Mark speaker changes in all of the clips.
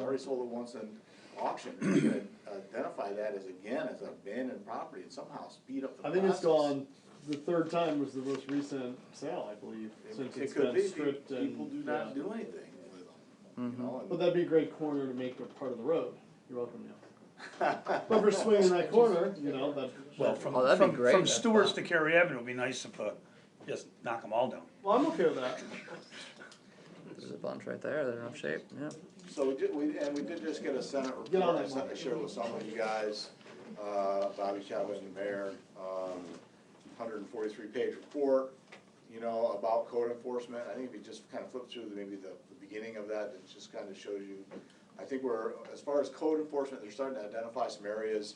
Speaker 1: already sold it once in auction, we could identify that as again, as abandoned property and somehow speed up the
Speaker 2: I
Speaker 1: process.
Speaker 2: think it's gone, the third time was the most recent sale, I believe,
Speaker 1: It-
Speaker 2: since
Speaker 1: It
Speaker 2: it's
Speaker 1: could
Speaker 2: been
Speaker 1: be,
Speaker 2: stripped
Speaker 1: Pe-
Speaker 2: and.
Speaker 1: people do not
Speaker 2: yeah.
Speaker 1: do anything with them, you know, and-
Speaker 2: But that'd be a great corner to make a part of the road, you're welcome now. But for swinging that corner, you know, that,
Speaker 3: Well, from,
Speaker 4: Oh, that'd be
Speaker 3: from,
Speaker 4: great,
Speaker 3: from
Speaker 4: that
Speaker 3: Stewart's
Speaker 4: thought.
Speaker 3: to Cary Avenue, it'd be nice if, uh, just knock them all down.
Speaker 2: well, I'm okay with that.
Speaker 4: There's a bunch right there, they're in rough shape, yeah.
Speaker 1: So we did, we, and we did just get a Senate
Speaker 2: Get on
Speaker 1: report,
Speaker 2: that
Speaker 1: I sent, I
Speaker 2: one.
Speaker 1: shared with some of you guys, uh, Bobby Chavez and the mayor, um, hundred and forty-three page report, you know, about code enforcement, I think if you just kind of flip through the, maybe the, the beginning of that, it just kind of shows you, I think we're, as far as code enforcement, they're starting to identify some areas,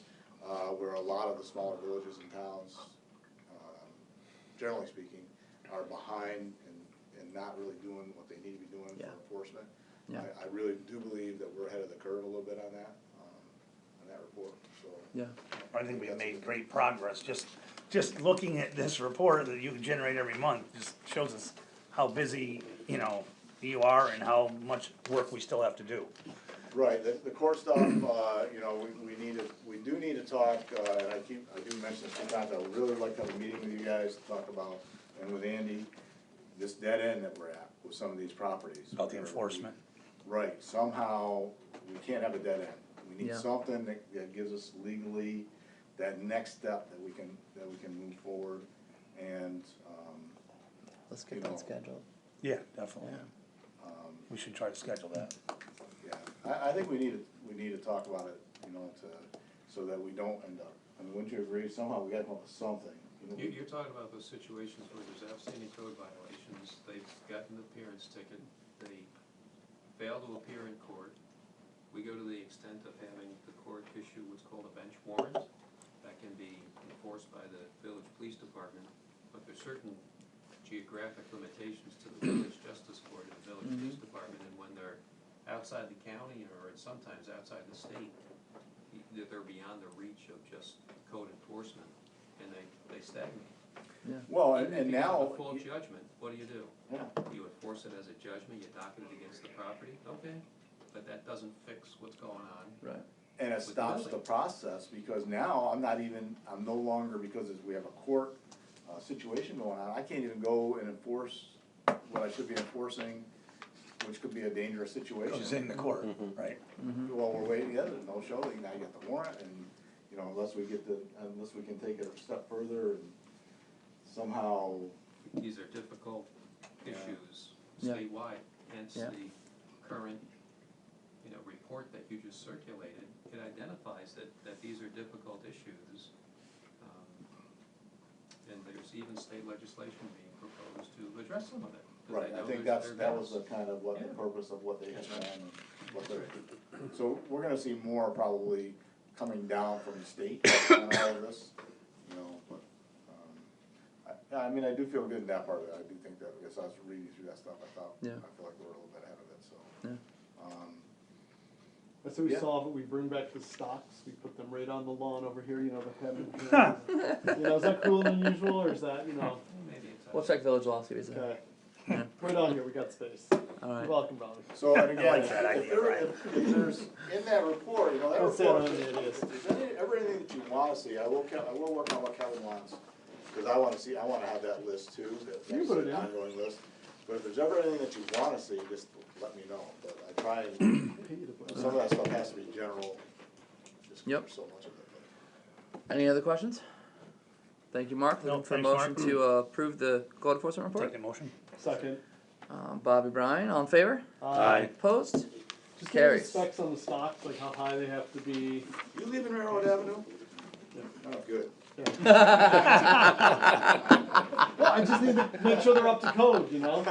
Speaker 1: uh, where a lot of the smaller villages and towns, um, generally speaking, are behind and, and not really doing what they need to be doing
Speaker 4: Yeah.
Speaker 1: for enforcement.
Speaker 4: Yeah.
Speaker 1: I, I really do believe that we're ahead of the curve a little bit on that, um, on that report, so.
Speaker 4: Yeah,
Speaker 3: I think we've made great progress, just, just looking at this report that you can generate every month, just shows us how busy, you know, you are and how much work we still have to do.
Speaker 1: Right, the, the court stuff, uh, you know, we, we need to, we do need to talk, uh, and I keep, I do mention this sometimes, I would really like to have a meeting with you guys to talk about, and with Andy, this dead end that we're at with some of these properties.
Speaker 3: About the
Speaker 1: where we-
Speaker 3: enforcement.
Speaker 1: Right, somehow, we can't have a dead end. We need
Speaker 4: Yeah.
Speaker 1: something that, that gives us legally that next step that we can, that we can move forward, and, um,
Speaker 4: let's
Speaker 1: You
Speaker 4: get
Speaker 1: know.
Speaker 4: that scheduled.
Speaker 3: Yeah, definitely. We should try to schedule that.
Speaker 1: Yeah, I, I think we need to, we need to talk about it, you know, to, so that we don't end up, I mean, wouldn't you agree, somehow we gotta come up with something. you know?
Speaker 5: You, you're talking about those situations where there's outstanding code violations, they've gotten an appearance ticket, they fail to appear in court. We go to the extent of having the court issue what's called a bench warrant, that can be enforced by the village police department, but there's certain geographic limitations to the village justice court and the village
Speaker 1: Mm-hmm.
Speaker 5: police department, and when they're outside the county or sometimes outside the state, y- that they're beyond the reach of just code enforcement, and they, they stagnate.
Speaker 1: Well, and,
Speaker 5: Even if
Speaker 1: and
Speaker 5: you have
Speaker 1: now,
Speaker 5: a full judgment, what do you do?
Speaker 1: yeah,
Speaker 5: You enforce it as a judgment, you docket it against the property, okay, but that doesn't fix what's going on.
Speaker 4: Right.
Speaker 1: and it stops the process, because now I'm not even, I'm no longer, because we have a court, uh, situation going on, I can't even go and enforce what I should be enforcing, which could be a dangerous situation.
Speaker 3: Goes in the court, right?
Speaker 1: Well, we're waiting, yeah, there's no show, they now get the warrant, and, you know, unless we get the, unless we can take it a step further and somehow,
Speaker 5: These are difficult issues
Speaker 4: Yeah.
Speaker 5: statewide, hence
Speaker 4: Yeah.
Speaker 5: the current, you know, report that you just circulated. It identifies that, that these are difficult issues. um, And there's even state legislation being proposed to address some of it. 'cause
Speaker 1: right, I
Speaker 5: know
Speaker 1: think
Speaker 5: there's-
Speaker 1: that's,
Speaker 5: there
Speaker 1: that was
Speaker 5: is.
Speaker 1: the kind of what, the
Speaker 5: Yeah.
Speaker 1: purpose of what they had
Speaker 5: That's
Speaker 1: done and what they're. So we're gonna see more probably coming down from the state on all of this, you know, but, um, I, I mean, I do feel good in that part of it, I do think that, because I was reading through that stuff, I thought, I
Speaker 4: Yeah.
Speaker 1: feel like we're a little bit ahead of it, so.
Speaker 4: Yeah.
Speaker 1: Um,
Speaker 2: I say we
Speaker 1: Yeah.
Speaker 2: solve it, we bring back the stocks, we put them right on the lawn over here, you know, the heaven. You know, is that cruel and unusual, or is that, you know,
Speaker 5: Maybe it's.
Speaker 4: We'll check Village Law, see what he says.
Speaker 2: okay. Right on here, we got space. You're
Speaker 4: Alright.
Speaker 2: welcome, Bobby.
Speaker 1: So, and again,
Speaker 3: like that
Speaker 1: if
Speaker 3: idea,
Speaker 1: there,
Speaker 3: Brian.
Speaker 1: if, if there's, in that report, you know, that
Speaker 2: That's it,
Speaker 1: report,
Speaker 2: I mean, it is.
Speaker 1: if there's any, ever anything that you wanna see, I will, Ke- I will work on what Kevin wants. Cause I wanna see, I wanna have that list too, that,
Speaker 2: You can put it
Speaker 1: that's an
Speaker 2: in.
Speaker 1: ongoing list. But if there's ever anything that you wanna see, just let me know, but I try and, some of that stuff has to be general. just 'cause
Speaker 4: Yep.
Speaker 1: there's So much of it,
Speaker 4: Any other questions? Thank you, Mark.
Speaker 3: No,
Speaker 4: Looking for a
Speaker 3: thanks,
Speaker 4: motion
Speaker 3: Mark.
Speaker 4: to uh, approve the code enforcement
Speaker 3: Take
Speaker 4: report.
Speaker 3: the motion.
Speaker 2: Second.
Speaker 4: Um, Bobby Bryan, all in favor?
Speaker 2: Aye.
Speaker 4: Opposed?
Speaker 2: Just give me the
Speaker 4: Carries.
Speaker 2: specs on the stocks, like how high they have to be.
Speaker 1: but- You leaving Railroad Avenue?
Speaker 2: Yeah.
Speaker 1: Oh, good.
Speaker 2: Well, I just need to make sure they're up to code, you know?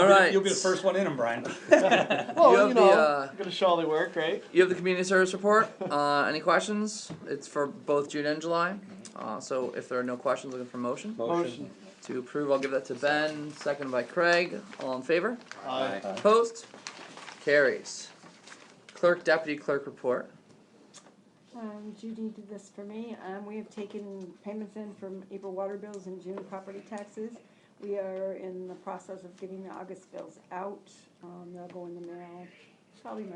Speaker 4: All right.
Speaker 3: You'll be the first one in them, Brian.
Speaker 4: You
Speaker 2: Well,
Speaker 4: have
Speaker 2: you
Speaker 4: the,
Speaker 2: know,
Speaker 4: uh,
Speaker 2: gotta show how they work, right?
Speaker 4: You have the community service report. Uh, any questions? It's for both June and July. Uh, so if there are no questions, looking for motion
Speaker 2: Motion.
Speaker 4: to approve. I'll give that to Ben. Second by Craig. All in favor?
Speaker 2: Aye.
Speaker 4: Opposed? Carries. Clerk Deputy Clerk report.
Speaker 6: Um, Judy did this for me, um, we have taken payments in from April water bills and June property taxes. We are in the process of getting the August bills out, um, they'll go in the mail, probably